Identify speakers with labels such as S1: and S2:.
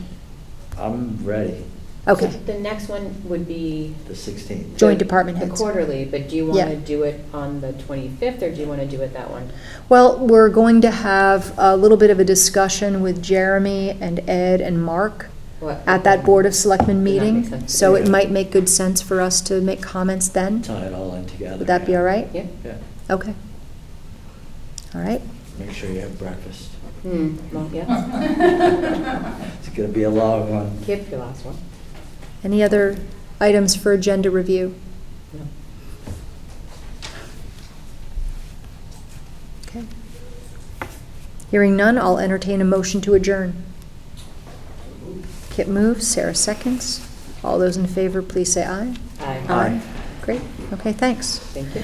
S1: I'm ready,
S2: Okay,
S3: So The next one would be.
S1: the 16th.
S2: Joint
S3: the-
S2: department
S3: The
S2: heads.
S3: quarterly, but do you
S2: Yeah.
S3: want to do it on the 25th, or do you want to do it that one?
S2: well, we're going to have a little bit of a discussion with Jeremy and Ed and Mark
S3: What-
S2: at that Board of Selectmen
S3: That makes
S2: meeting,
S3: sense.
S2: so it
S1: Yeah.
S2: might make good sense for us to make comments then.
S1: Tie it all in together.
S2: Would that be all right?
S3: Yeah?
S1: Yeah,
S2: Okay. All right,
S1: make sure you have breakfast.
S3: Hmm, well, yeah.
S1: It's gonna be a long one.
S3: Skip your last one.
S2: any other items for agenda review?
S3: No.
S2: Okay. Hearing none, I'll entertain a motion to adjourn. Kip moves, Sarah seconds. All those in favor, please say aye.
S3: Aye.
S1: Aye.
S2: Great, okay, thanks.
S3: Thank you.